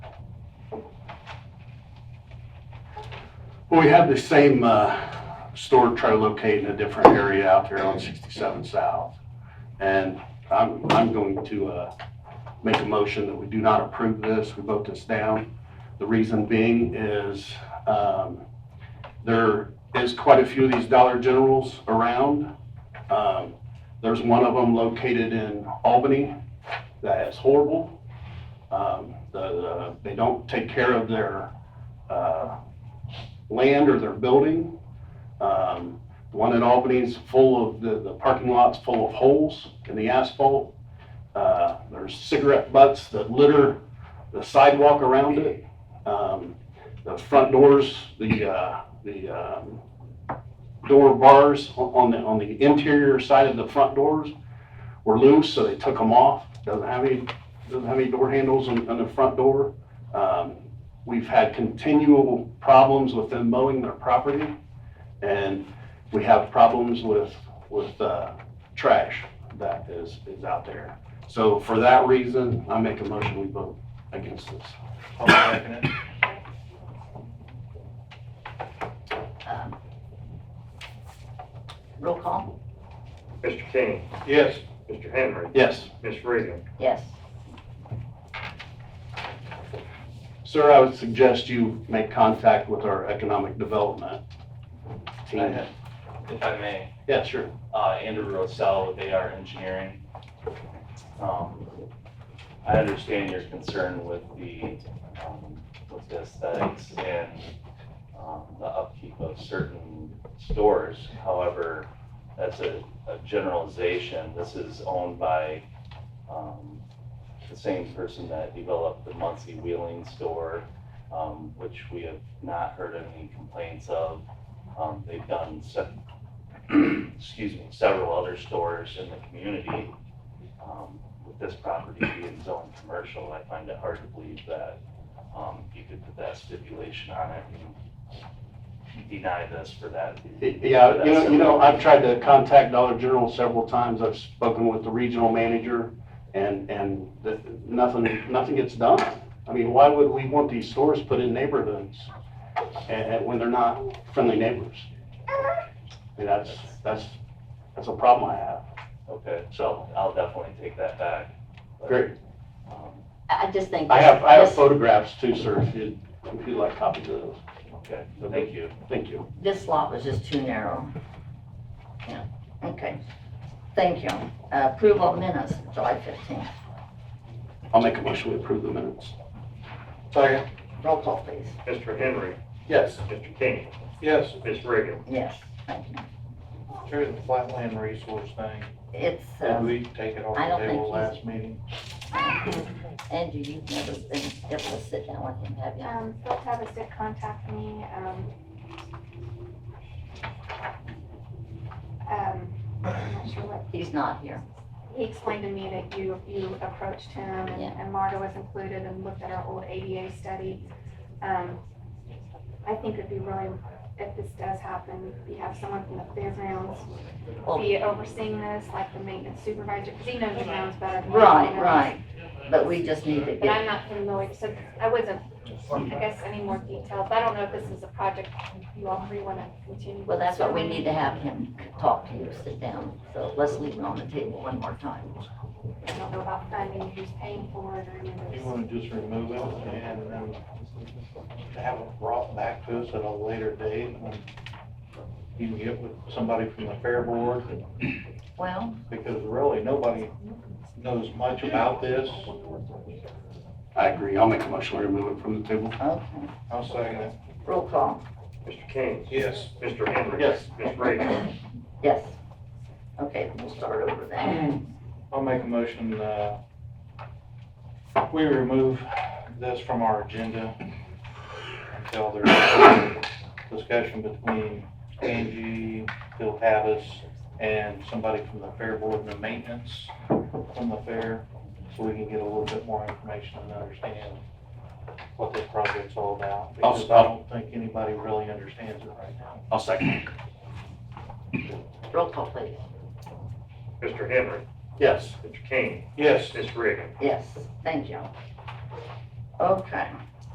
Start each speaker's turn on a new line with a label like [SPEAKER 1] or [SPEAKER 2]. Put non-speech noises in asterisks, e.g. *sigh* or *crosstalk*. [SPEAKER 1] Well, we have the same uh, store try to locate in a different area out there on 67 South. And I'm, I'm going to uh, make a motion that we do not approve this, we vote this down. The reason being is um, there is quite a few of these Dollar Generals around. Um, There's one of them located in Albany that is horrible. Um, the- the- They don't take care of their uh, land or their building. Um, The one in Albany is full of, the, the parking lot's full of holes in the asphalt. Uh, There's cigarette butts that litter the sidewalk around it. Um, The front doors, the, uh, the um, door bars on- on the, on the interior side of the front doors were loose, so they took them off. Doesn't have any, doesn't have any door handles on, on the front door. Um, We've had continual problems with them mowing their property, and we have problems with, with uh, trash that is, is out there. So for that reason, I make a motion, we vote against this.
[SPEAKER 2] I'll second it.
[SPEAKER 3] Um, Roll call?
[SPEAKER 4] Mr. King,
[SPEAKER 1] Yes.
[SPEAKER 4] Mr. Henry,
[SPEAKER 1] Yes.
[SPEAKER 4] Miss Reagan.
[SPEAKER 3] Yes.
[SPEAKER 1] Sir, I would suggest you make contact with our economic development
[SPEAKER 2] I
[SPEAKER 1] team.
[SPEAKER 2] had- If I may,
[SPEAKER 1] Yeah, sure.
[SPEAKER 2] uh, Andrew Rosell with AR Engineering. Um, I understand your concern with the, um, with the aesthetics and, um, the upkeep of certain stores. However, that's a, a generalization. This is owned by, um, the same person that developed the Muncie Wheeling store, um, which we have not heard any complaints of. Um, they've done se- *clears throat* excuse me, several other stores in the community. Um, With this property being zoned commercial, I find it hard to believe that um, you could put that stipulation on it and deny this for that.
[SPEAKER 1] Yeah, you know, you know, I've tried to contact Dollar General several times. I've spoken with the regional manager and, and the- nothing, nothing gets done. I mean, why would we want these stores put in neighborhoods and, and when they're not friendly neighbors? And that's, that's, that's a problem I have.
[SPEAKER 2] Okay, so I'll definitely take that back. But,
[SPEAKER 1] Great.
[SPEAKER 2] um,
[SPEAKER 3] I I just think.
[SPEAKER 1] I have, I have
[SPEAKER 3] this-
[SPEAKER 1] photographs too, sir, if you'd, if you'd like copies of those.
[SPEAKER 2] Okay, thank you.
[SPEAKER 1] Thank you.
[SPEAKER 3] This lot was just too narrow. Yeah, okay. Thank you. Uh, Approval of minutes, July 15th.
[SPEAKER 1] I'll make a motion to approve the minutes. Second.
[SPEAKER 3] Roll call, please.
[SPEAKER 4] Mr. Henry,
[SPEAKER 1] Yes.
[SPEAKER 4] Mr. King,
[SPEAKER 1] Yes.
[SPEAKER 4] Miss Reagan.
[SPEAKER 3] Yes, thank you.
[SPEAKER 5] Sure, the flatland resource thing,
[SPEAKER 3] It's,
[SPEAKER 5] did
[SPEAKER 3] um,
[SPEAKER 5] we take it off
[SPEAKER 3] I don't
[SPEAKER 5] the
[SPEAKER 3] think
[SPEAKER 5] table
[SPEAKER 3] he's-
[SPEAKER 5] last meeting?
[SPEAKER 3] Andrew, you've never been able to sit down with him, have you?
[SPEAKER 6] Um, Phil Tavis did contact me, um. Um, I'm not sure what,
[SPEAKER 3] He's not here.
[SPEAKER 6] he explained to me that you, you approached him and-
[SPEAKER 3] Yeah.
[SPEAKER 6] and Marta was included and looked at our old ADA study. Um, I think it'd be really, if this does happen, you have someone from the fairgrounds
[SPEAKER 3] Well-
[SPEAKER 6] be overseeing this, like the maintenance supervisor, because he knows the grounds better than
[SPEAKER 3] Right,
[SPEAKER 6] anyone else.
[SPEAKER 3] right. But we just need to
[SPEAKER 6] But I'm
[SPEAKER 3] get,
[SPEAKER 6] not familiar, so I wasn't, I guess, any more details. I don't know if this is a project you all three want to continue.
[SPEAKER 3] well, that's what we need to have him talk to you, sit down. So let's leave it on the table one more time.
[SPEAKER 6] I don't know about funding, who's paying for it or any of
[SPEAKER 5] You
[SPEAKER 6] this.
[SPEAKER 5] wanna just remove it and then have it brought back to us at a later date? when You can get with somebody from the fair board,
[SPEAKER 3] Well,
[SPEAKER 5] because really, nobody knows much about this.
[SPEAKER 1] I agree. I'll make a motion to remove it from the table.
[SPEAKER 3] okay.
[SPEAKER 5] I'll second it.
[SPEAKER 3] Roll call.
[SPEAKER 4] Mr. King,
[SPEAKER 5] Yes.
[SPEAKER 4] Mr. Henry.
[SPEAKER 1] Yes.
[SPEAKER 4] Miss Reagan.
[SPEAKER 3] Yes. Okay, we'll start over then.
[SPEAKER 5] I'll make a motion, uh, we remove this from our agenda until there's a discussion between Angie, Phil Tavis, and somebody from the fair board and the maintenance from the fair, so we can get a little bit more information and understand what this project's all about.
[SPEAKER 1] I'll-
[SPEAKER 5] Because I don't think anybody really understands it right now.
[SPEAKER 1] I'll second.
[SPEAKER 3] Roll call, please.
[SPEAKER 4] Mr. Henry,
[SPEAKER 1] Yes.
[SPEAKER 4] Mr. King,
[SPEAKER 5] Yes.
[SPEAKER 4] Miss Reagan.
[SPEAKER 3] Yes, thank you. Okay,